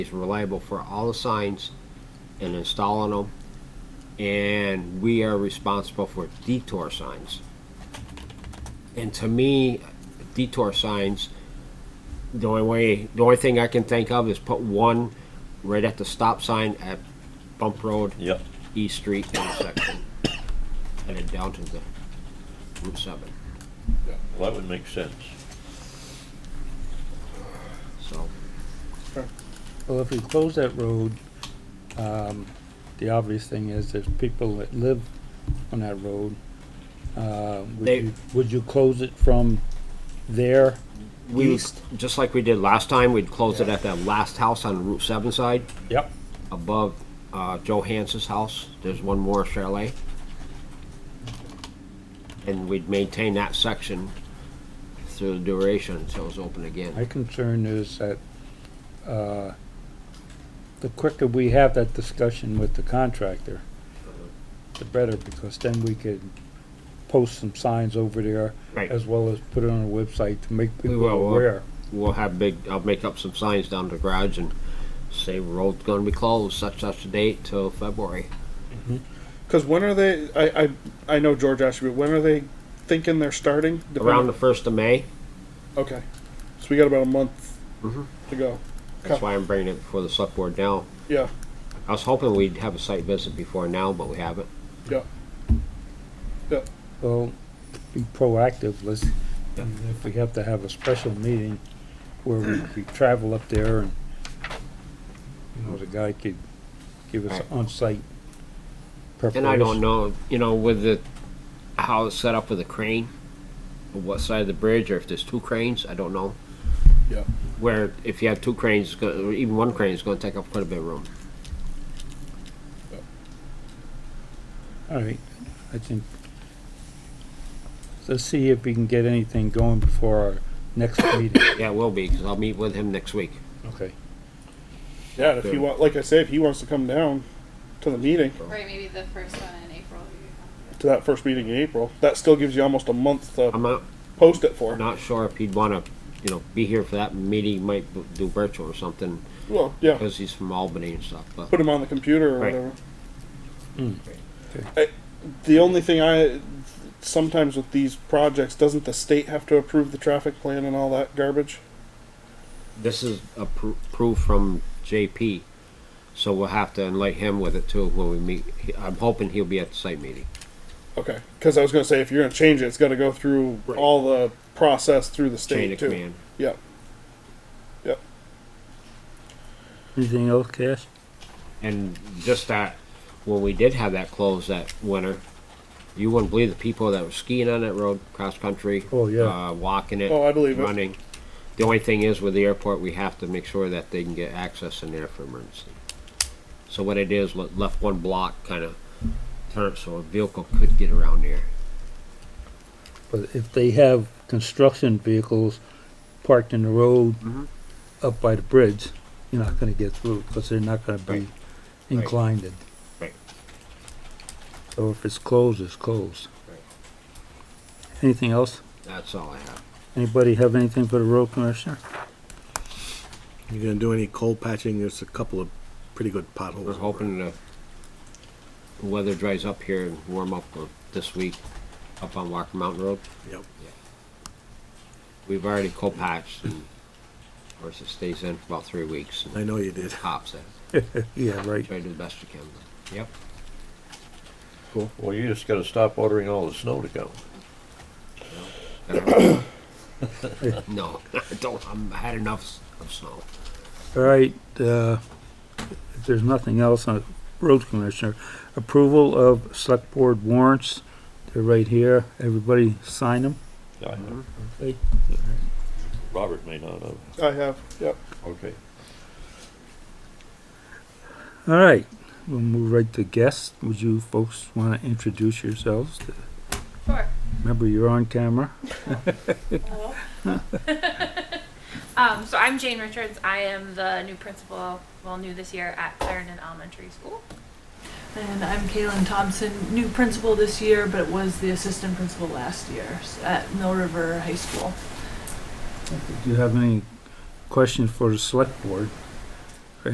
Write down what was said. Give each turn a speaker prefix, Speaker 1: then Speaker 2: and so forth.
Speaker 1: is reliable for all the signs and installing them. And we are responsible for detour signs. And to me, detour signs, the only way, the only thing I can think of is put one right at the stop sign at Bump Road,
Speaker 2: Yep.
Speaker 1: East Street intersection. And then down to the Route seven,
Speaker 2: Well, that would make sense.
Speaker 1: so.
Speaker 3: Well, if we close that road, um, the obvious thing is there's people that live on that road. Uh, would
Speaker 1: They-
Speaker 3: you, would you close it from there?
Speaker 1: We, would-
Speaker 3: East?
Speaker 1: just like we did last time, we'd close it at that last house on Route seven side.
Speaker 3: Yep.
Speaker 1: above uh, Joe Hans's house, there's one more chalet. And we'd maintain that section through the duration until it's open
Speaker 3: My
Speaker 1: again.
Speaker 3: concern is that, uh, the quicker we have that discussion with the contractor, the better, because then we could post some signs over there.
Speaker 1: Right.
Speaker 3: As well as put it on a website to make people
Speaker 1: will, we'll-
Speaker 3: aware.
Speaker 1: We'll have big, I'll make up some signs down the garage and say road's gonna be closed such such a date till February.
Speaker 4: Because when are they? I, I I know George asked you, but when are they thinking they're starting? Depending-
Speaker 1: Around the first of May,
Speaker 4: okay, so we got about a month
Speaker 1: Mm-hmm.
Speaker 4: to go.
Speaker 1: that's
Speaker 4: Okay.
Speaker 1: why I'm bringing it before the select board now.
Speaker 4: Yeah,
Speaker 1: I was hoping we'd have a site visit before now, but we haven't.
Speaker 4: yeah, yeah.
Speaker 3: Well, be proactive, let's, if we have to have a special meeting where we, we travel up there and, you know, the guy could give us
Speaker 1: Right.
Speaker 3: on-site
Speaker 1: And I don't
Speaker 3: preparation.
Speaker 1: know, you know, with the, how it's set up with a crane, or what side of the bridge, or if there's two cranes, I don't know.
Speaker 4: Yeah.
Speaker 1: Where if you have two cranes, it's gonna- or even one crane is gonna take up quite a bit of room.
Speaker 3: All right, I think, let's see if we can get anything going before our next meeting.
Speaker 1: Yeah, it will be, because I'll meet with him next week.
Speaker 3: Okay.
Speaker 4: Yeah, and if he want, like I said, if he wants to come down to the meeting,
Speaker 5: Right, maybe the first one in April.
Speaker 4: to that first meeting in April, that still gives you almost a month to
Speaker 1: I'm not,
Speaker 4: post it for.
Speaker 1: not sure if he'd wanna, you know, be here for that meeting, He might b- do virtual or something,
Speaker 4: Well, yeah,
Speaker 1: because he's from Albany and stuff, but.
Speaker 4: put him on the computer or
Speaker 1: Right.
Speaker 4: whatever.
Speaker 3: Mm.
Speaker 4: I, the only thing I sometimes with these projects doesn't the state have to approve the traffic plan and all that garbage?
Speaker 1: This is approved from JP, so we'll have to enlighten him with it too when we meet. He- I'm hoping he'll be at the site meeting.
Speaker 4: Okay, because I was going to say if you're going to change it, it's going to go through
Speaker 1: Right.
Speaker 4: all the process through the
Speaker 1: Chain
Speaker 4: state
Speaker 1: of
Speaker 4: too.
Speaker 1: command.
Speaker 4: Yep. Yep.
Speaker 3: Anything else, Cash?
Speaker 1: And just that, when we did have that closed that winter, you wouldn't believe the people that were skiing on that road, cross country.
Speaker 3: Oh, yeah.
Speaker 1: Uh, walking it.
Speaker 4: Oh, I believe it.
Speaker 1: Running. The only thing is with the airport, we have to make sure that they can get access in there for emergency. So what I did is le- left one block kind of turn it so a vehicle could get around there.
Speaker 3: But if they have construction vehicles parked in the road
Speaker 1: Mm-hmm.
Speaker 3: up by the bridge, you're not gonna get through, because they're not gonna
Speaker 1: Right.
Speaker 3: be inclined. in.
Speaker 1: Right.
Speaker 3: So if it's closed, it's closed.
Speaker 1: Right.
Speaker 3: Anything else?
Speaker 1: That's all I have.
Speaker 3: Anybody have anything for the road commissioner?
Speaker 6: You're gonna do any coal patching? There's a couple of pretty good potholes.
Speaker 1: We're hoping the weather dries up here and warm up uh, this week up on Walker Mountain Road.
Speaker 6: Yep.
Speaker 1: We've already co-patched, and of course, it stays in for about three weeks
Speaker 6: I
Speaker 1: and
Speaker 6: know you did.
Speaker 1: tops it.
Speaker 3: Yeah, right.
Speaker 1: Try to do the best we can. Yep.
Speaker 2: Well, you just gotta stop ordering all the snow to come.
Speaker 1: No, I don't, I'm- I had enough s- of snow.
Speaker 3: All right, uh, if there's nothing else on road commissioner, approval of select board warrants, they're right here, everybody sign them.
Speaker 2: I know.
Speaker 3: Okay.
Speaker 2: Robert may not have.
Speaker 4: I have. Yep.
Speaker 2: Okay.
Speaker 3: All right, we'll move right to guests. Would you folks want to introduce yourselves?
Speaker 5: Sure.
Speaker 3: Remember, you're on camera.
Speaker 5: um, so I'm Jane Richards. I am the new principal, well, new this year at Clarendon Elementary School.
Speaker 7: And I'm Kaylin Thompson, new principal this year, but was the assistant principal last year s- at Mill River High School.
Speaker 3: Do you have any questions for the select board?